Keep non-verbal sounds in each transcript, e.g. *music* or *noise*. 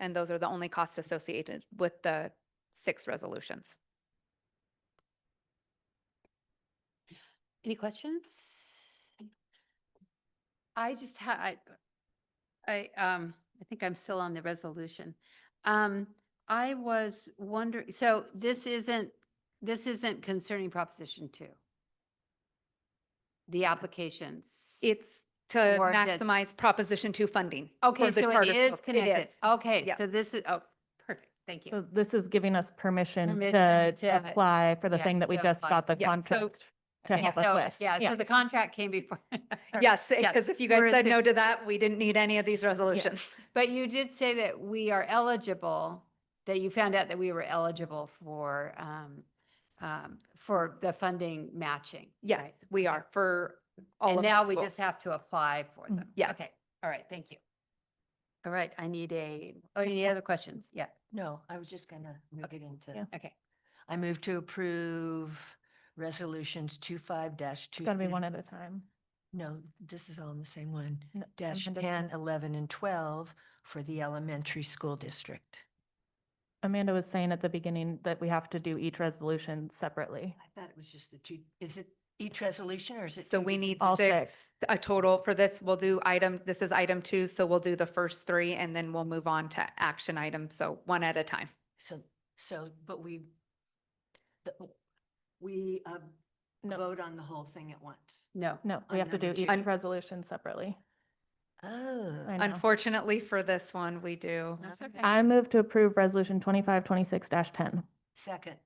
And those are the only costs associated with the six resolutions. Any questions? I just had, I, I, um, I think I'm still on the resolution. Um, I was wondering, so this isn't, this isn't concerning Proposition Two? The applications? It's to Or the- maximize Proposition Two funding. for Okay, the so it charter is schools. connected. is. Okay, Yep. so this is, oh, perfect, thank you. So this is giving us permission Permission to to, uh, apply for the yeah, thing that we to just apply. got the Yeah, so- contract to Okay, help us so- with. Yeah, so the contract came before. *laughs* Yes, Yes. because if you guys Whereas said if- no to that, we didn't need any of these resolutions. But you did say that we are eligible, that you found out that we were eligible for, um, um, for the funding matching. *laughs* Yes, right? we are for all And of our now we schools. just Mm-hmm. have to apply for Mm, them. yes. Okay, all right, thank you. All right, I need a, oh, any other questions? Yeah, No, I was just gonna move it into, Yeah. okay. I move to approve resolutions two five dash two. It's gotta be one at a time. No, this is all in the same one, No, dash Amanda- 10, 11, and twelve for the elementary school district. Amanda was saying at the beginning that we have to do each resolution separately. I thought it was just the two, is it each resolution or is it? So two we different- need All six, a total for this. We'll do item, this is item two, so we'll do the first three and then we'll move on to action items. So one at a time. So, so, but we, the- we uh, No, vote on the whole thing at once. No, no, we on have to do number two. each resolution separately. I Oh. know. Unfortunately, for this one, we do. that's okay. I move to approve resolution twenty-five, twenty-six ten. Second.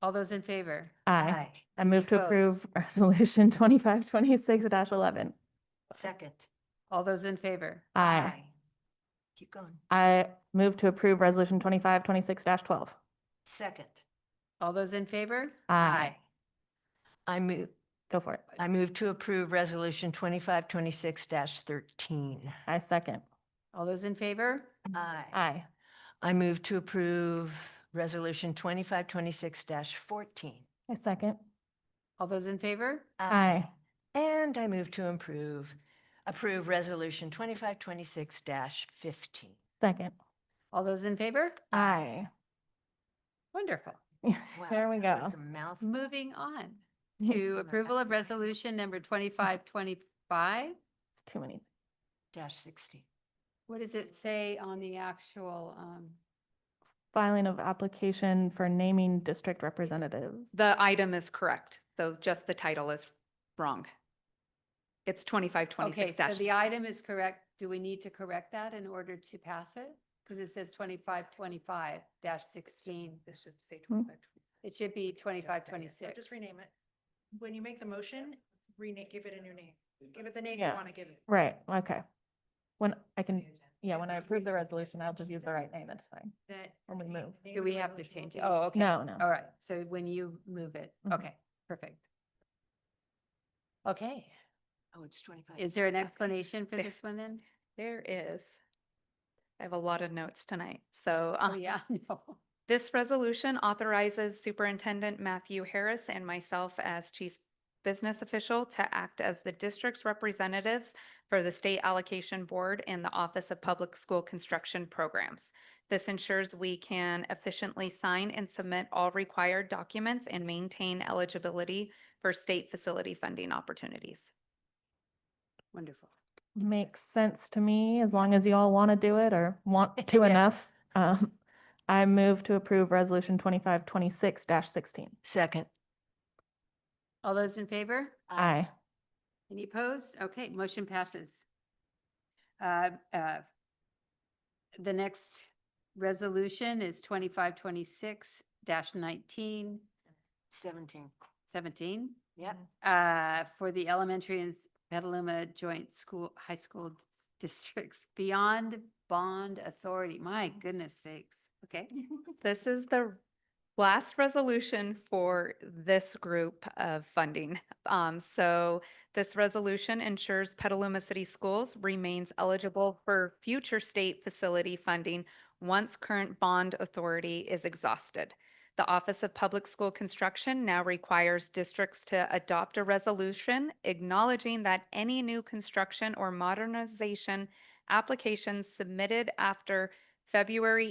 All those in favor? Aye. Aye. I move to Opposed? approve *laughs* resolution twenty-five, twenty-six eleven. Second. All those in favor? Aye. Keep going. I move to approve resolution twenty-five, twenty-six twelve. Second. All those in favor? Aye. I move, Go for it. I move to approve Resolution twenty-five twenty-six thirteen. I second. All those in favor? Aye. Aye. I move to approve Resolution twenty-five twenty-six fourteen. I second. All those in favor? Aye. And I move to improve, approve Resolution twenty-five twenty-six fifteen. Second. All those in favor? Aye. Wonderful. *laughs* There we that was go. Mm. a mouthful. Moving on to approval of resolution number twenty-five twenty-five. It's too many. Dash sixteen. What does it say on the actual, um, Filing of application for naming district representatives. The item is correct, so just the title is wrong. It's twenty-five, okay, twenty-six so dash. the item is correct. Do we need to correct that in order to pass it? Because it says twenty-five twenty-five dash sixteen. This should say Hmm. twenty-five. It should be twenty-five twenty-six. Just rename it. When you make the motion, rename, give it a new name. Give it the name you Yeah. want to give it. Right, okay. When I can, yeah, when I approve the resolution, I'll just use the right name, it's fine. That. When we move. Do we have to change it? Oh, okay. No, no. All right. So when you move it, Mhm. okay, perfect. Okay. Oh, it's twenty-five. Is there an explanation for There. this one then? There is. I have a lot of notes tonight, so. Oh, uh, yeah, *laughs* no. This resolution authorizes Superintendent Matthew Harris and myself as chief business official to act as the district's representatives for the State Allocation Board and the Office of Public School Construction Programs. This ensures we can efficiently sign and submit all required documents and maintain eligibility for state facility funding opportunities. Wonderful. Makes sense to me, as long as you all want to do it or want to Yeah. enough. Um, I move to approve resolution twenty-five, twenty-six sixteen. Second. All those in favor? Uh, Aye. Any opposed? Okay, motion passes. Uh, uh, The next resolution is twenty-five twenty-six dash nineteen Seventeen. seventeen Yep. uh, for the elementary and s- Petaluma Joint School, High School dis- Districts Beyond Bond Authority. My goodness sakes. Okay. This is the last resolution for this group of funding. Um, so this resolution ensures Petaluma City Schools remains eligible for future state facility funding once current bond authority is exhausted. The Office of Public School Construction now requires districts to adopt a resolution acknowledging that any new construction or modernization applications submitted after February